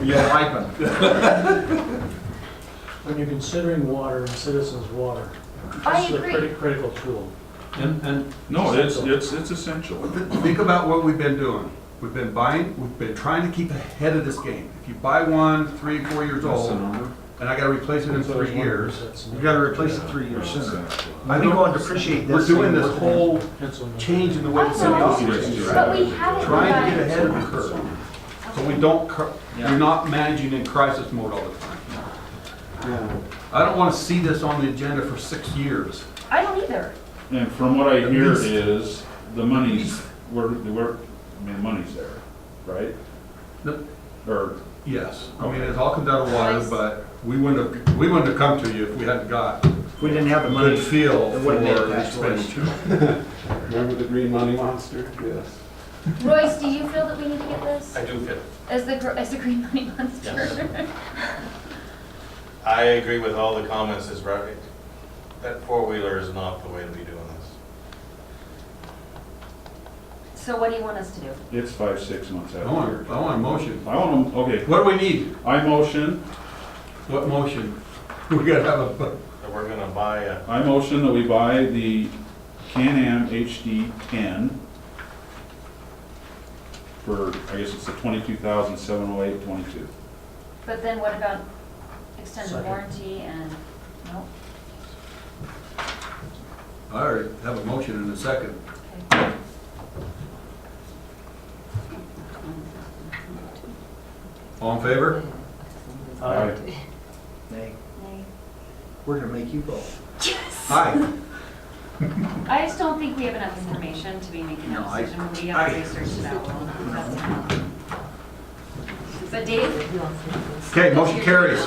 You don't like them. When you're considering water and citizens' water, I this is a agree. criti- critical tool. And, and, no, it's, it's, it's essential. Th- Think about what we've been doing. We've been buying, we've been trying to keep ahead of this game. If you buy one three, four years That's the old, number. and I gotta replace it in That's what I was three wondering, years, that's- You gotta replace it three years sooner. I I don't- think we'll depreciate this. we're doing this thing. whole Pencil and- change in the way I the city know, operates, but we haven't. trying to done- get ahead of the curve. So we don't, cur- Yeah. you're not managing in crisis mode all the time. I don't wanna see this on the agenda for six years. I don't either. And from what I At hear least. is, the money's, we're, we're, I mean, money's there, right? No. Or, Yes, I mean, it all comes out of water, but we wouldn't have, we wouldn't have come to you if we hadn't got a If we didn't have the money, good feel It for wouldn't have the been that choice. expenditure. Remember the green money monster? Yes. Royce, do you feel that we need to get this I do feel, as the, gr- as the green money monster? I agree with all the comments is right. That four-wheeler is not the way to be doing this. So what do you want us to do? it's five, six months I out here. want, I want a motion. I want them, okay, What do we need? I motion, What motion? We gotta have a, bu- That we're gonna buy a, I motion that we buy the Can-Am HD ten for, I guess it's the twenty-two thousand, seven oh eight, twenty-two. But then what about extended Second. warranty and, no? I already have a motion in a second. Okay. All in favor? Uh, Nay, Nay. we're gonna make you vote. Aye. I just don't think we have enough information to be making No, that I- decision. We I- have to research it out. That's enough. But Dave? Okay, motion carries.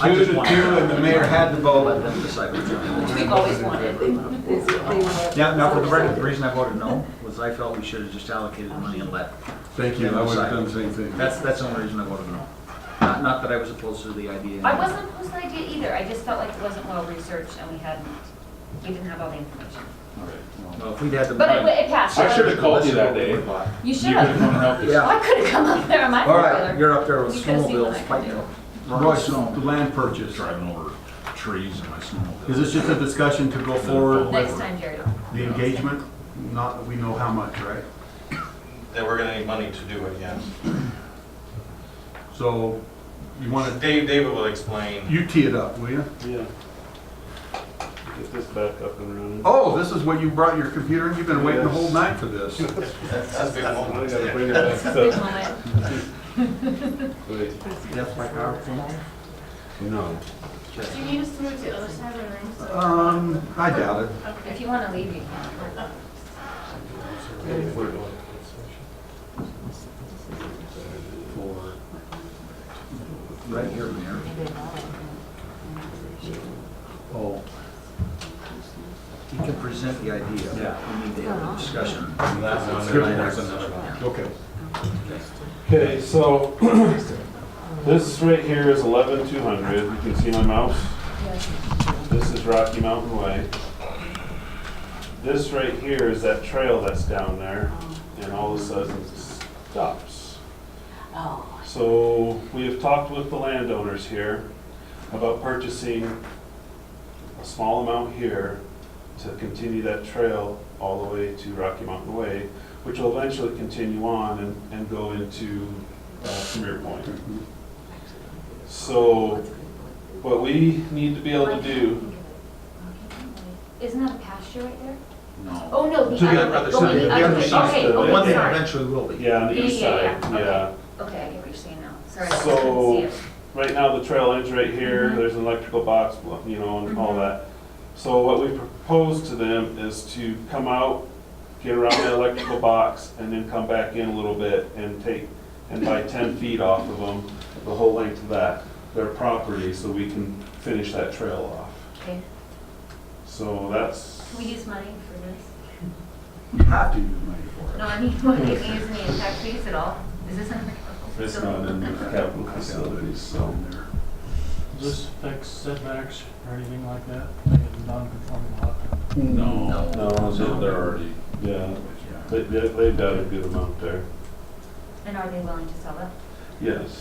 I Two to just two, want- and the mayor had the Let vote. them decide what they're doing. Which we've always wanted. Now, Yeah, now for the record, the reason I voted no was I felt we should have just allocated the money and let. Thank you, I would have done the same thing. That's, that's the only reason I voted no. Not, not that I was opposed to the idea. I wasn't opposed to the idea either. I just felt like it wasn't well researched and we hadn't, we didn't have all the information. All right. Well, well, if we'd had the. But it, it passed. I should've called you that Let's day. see what we bought. You should You could've have. come and helped us. Yeah. I could have come up there on my All right, four-wheeler. you're up there with You could've seen what I snowmobiles could fighting. do. Royce, the land purchase. Driving over trees in my snowmobile. Is this just a discussion to go forward Next with time, Jerry. the engagement? Not that we know how much, right? that we're gonna need money to do it, yes. So you want Dave, David will to, explain. you tee it up, will you? Yeah. Get this back up and running. Oh, this is what you brought your computer and you've been waiting the whole Yes. night for this. That's a big I moment. gotta bring it back Big up. moment. Wait, That's my PowerPoint. No. Do you need us to move to the other side of the room? so- Um, I doubt it. Okay. If you want to leave, you can. Right here, Mayor. Oh. He can present the idea. Yeah. We need to have a discussion. Okay. Okay, so this right here is eleven two hundred. You can see my mouse. This is Rocky Mountain Way. This right here is that trail that's down there and all of a sudden it stops. So we have talked with the landowners here about purchasing a small amount here to continue that trail all the way to Rocky Mountain Way, which will eventually continue on and, and go into uh, Premier Point. So what we need to be able to do, Isn't that a pasture right there? No. Oh, no, To the the other, other oh, side, the the other, other side. okay, The One okay, thing sorry. eventually will be. yeah, on the Yeah, east yeah, side, yeah, okay. yeah. Okay, I get what you're saying now. Sorry, I So- couldn't see it. Right now, the trail ends right here, Mhm. there's an electrical box, you know, and all Mhm. that. So what we propose to them is to come out, get around the electrical box, and then come back in a little bit and take, and buy ten feet off of them, the whole length of that, their property, so we can finish that trail off. Okay, So that's, can we use money for this? You have to use money for it. No, I mean, what, can we use any impact fees at all? Is this under? it's not in the capital facilities, so. Does this affect setbacks or anything like that? Like a non-conforming lot? No. No, No, They're already. yeah, Yeah. they, they- they've got a good amount there, And are they willing to sell it? yes.